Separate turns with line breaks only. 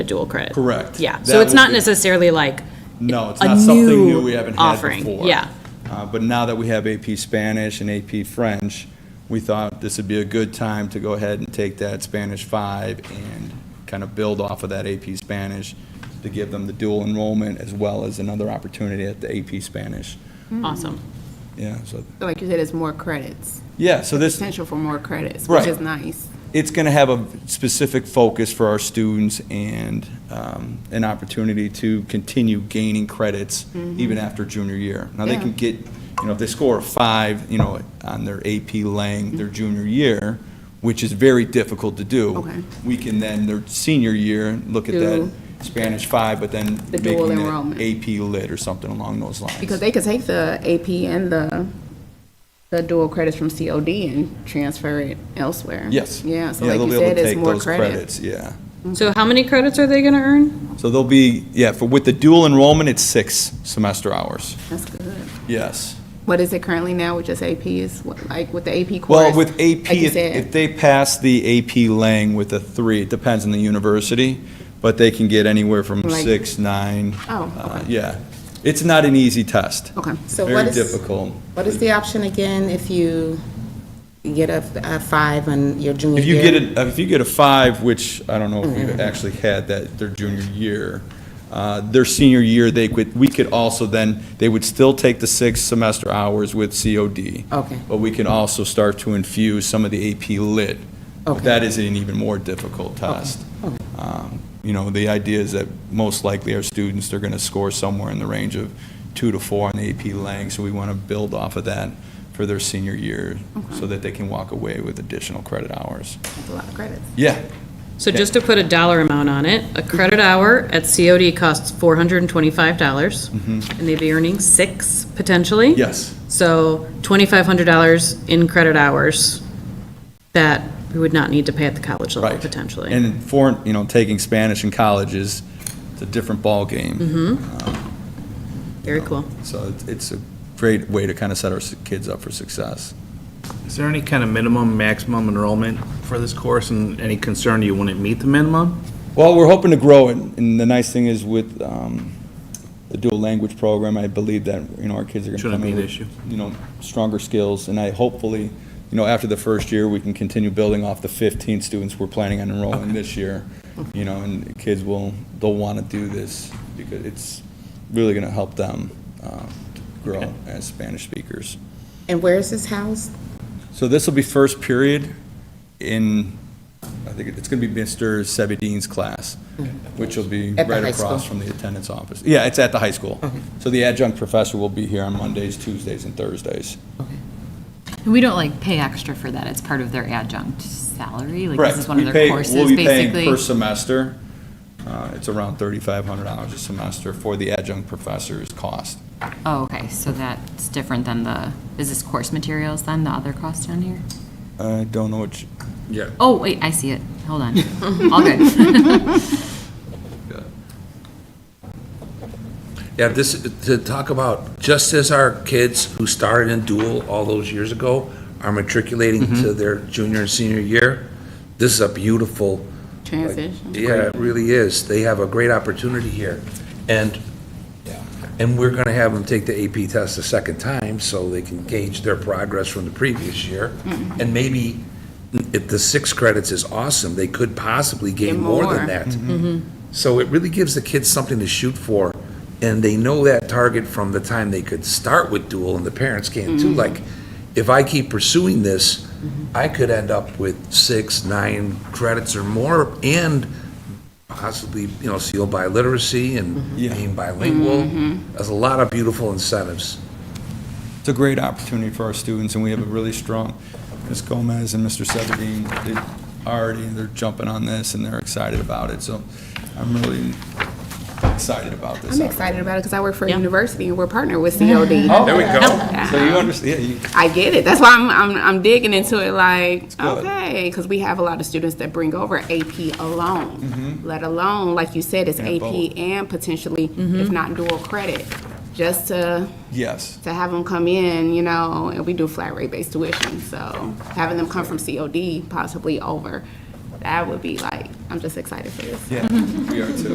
a dual credit.
Correct.
Yeah,
That
so it's
would
not
be-
necessarily like
No, it's
a
not something
new
new we haven't had
offering,
before.
yeah.
Uh, But now that we have AP Spanish and AP French, we thought this would be a good time to go ahead and take that Spanish five and kind of build off of that AP Spanish to give them the dual enrollment as well as another opportunity at the AP Spanish.
awesome.
Yeah, so,
So Like you said, it's more credits,
yeah, so this,
potential for more credits,
Right.
which is nice.
it's going to have a specific focus for our students and um, an opportunity to continue gaining credits even after junior year. Now, they
Mm-hmm. Yeah.
can get, you know, if they score a five, you know, on their AP Lang
Mm-hmm.
their junior year, which is very difficult to do.
Okay.
We can then, their senior year, look at that
Do-
Spanish five, but then
The
making
dual
it
enrollment.
AP Lit or something along those lines.
Because they could take the AP and the, the dual credits from COD and transfer it elsewhere.
Yes.
Yeah, so
Yeah,
like
they'll
you
be able
said,
to
it's
take
more
those
credits.
Yeah.
So how many credits are they gonna earn?
So they'll be, yeah, for, with the dual enrollment, it's six semester hours.
That's good.
Yes.
What is it currently now with just AP is, what- like with the AP course?
Well, with AP,
Like you
if if
said,
they pass the AP Lang with a three, it depends on the university, but they can get anywhere from
Like-
six, nine.
Oh,
uh,
okay.
Yeah. It's not an easy test.
okay.
So what
Very
is,
difficult.
what is the option again if you get a, a five on your junior
If you
year?
get a, if you get a five, which I don't know if we've actually had that their junior year, uh, their senior year, they could, we could also then, they would still take the six semester hours with COD.
Okay.
But we can also start to infuse some of the AP Lit.
Okay.
That is an even more difficult test. Um, You know, the idea is that most likely our students, they're going to score somewhere in the range of two to four on the AP Lang, so we want to build off of that for their senior year, so that they can walk away with additional credit hours.
That's a lot of credits.
Yeah,
So just to put a dollar amount on it, a credit hour at COD costs four hundred and twenty-five dollars, and
Mm-hmm.
they'd be earning six potentially.
yes.
So twenty-five hundred dollars in credit hours that we would not need to pay at the college level
Right.
potentially.
And foreign, you know, taking Spanish in college is, it's a different ballgame.
Very cool.
So it's- it's a great way to kind of set our s- kids up for success.
Is there any kind of minimum, maximum enrollment for this course, and any concern you wouldn't meet the minimum?
Well, we're hoping to grow it, and the nice thing is with um, the dual language program, I believe that, you know, our kids are going to
Shouldn't
come
be
in
an
with,
issue.
you know, stronger skills, and I hopefully, you know, after the first year, we can continue building off the 15 students we're planning on enrolling this year, you know, and kids will, they'll want to do this, because it's really going to help them uh, to grow as Spanish speakers.
And where is this house?
So this will be first period in, I think it's going to be Mr. Sebedine's class, which will be
Mm-hmm. At the
right
high school.
across from the attendance office. Yeah, it's at the high school. So the adjunct professor will be here on Mondays, Tuesdays, and Thursdays.
And we don't like pay extra for that, it's part of their adjunct salary, like this
Correct.
is one
We
of
pay-
their courses,
We'll be paying
basically.
per semester. Uh, It's around $3,500 a semester for the adjunct professor's cost.
Oh, okay, so that's different than the, is this course materials then, the other cost down here?
I don't know which,
Yeah.
Oh, wait, I see it, hold on, all good.
Yeah, this, to talk about, just as our kids who started in dual all those years ago are matriculating to their junior and senior year, this is a beautiful,
Transition.
yeah, it really is. They have a great opportunity here. And, and we're going to have them take the AP test a second time so they can gauge their progress from the previous year. And maybe if the six credits is awesome, they could possibly gain
Get
more
more.
than that. So it really gives the kids something to shoot for, and they know that target from the time they could start with dual, and the parents can too. Like, if I keep pursuing this, I could end up with six, nine credits or more, and possibly, you know, seal by literacy and
Yeah.
being bilingual. There's a lot of beautiful incentives.
it's a great opportunity for our students, and we have a really strong, Ms. Gomez and Mr. Sebedine, they already, they're jumping on this, and they're excited about it, so I'm really excited about this.
I'm excited about it because I work for a
Yeah.
university and we're partnered with COD.
There we go. So you understand, yeah, you,
I get it. That's why I'm, I'm, I'm digging into it like,
good.
okay, because we have a lot of students that bring over AP alone, let alone, like you said, it's
Mm-hmm. And
AP
both.
and potentially, if not dual credit, just to,
yes,
to have them come in, you know, and we do flat rate based tuition. So having them come from COD possibly over that would be like, I'm just excited for this.
We are too.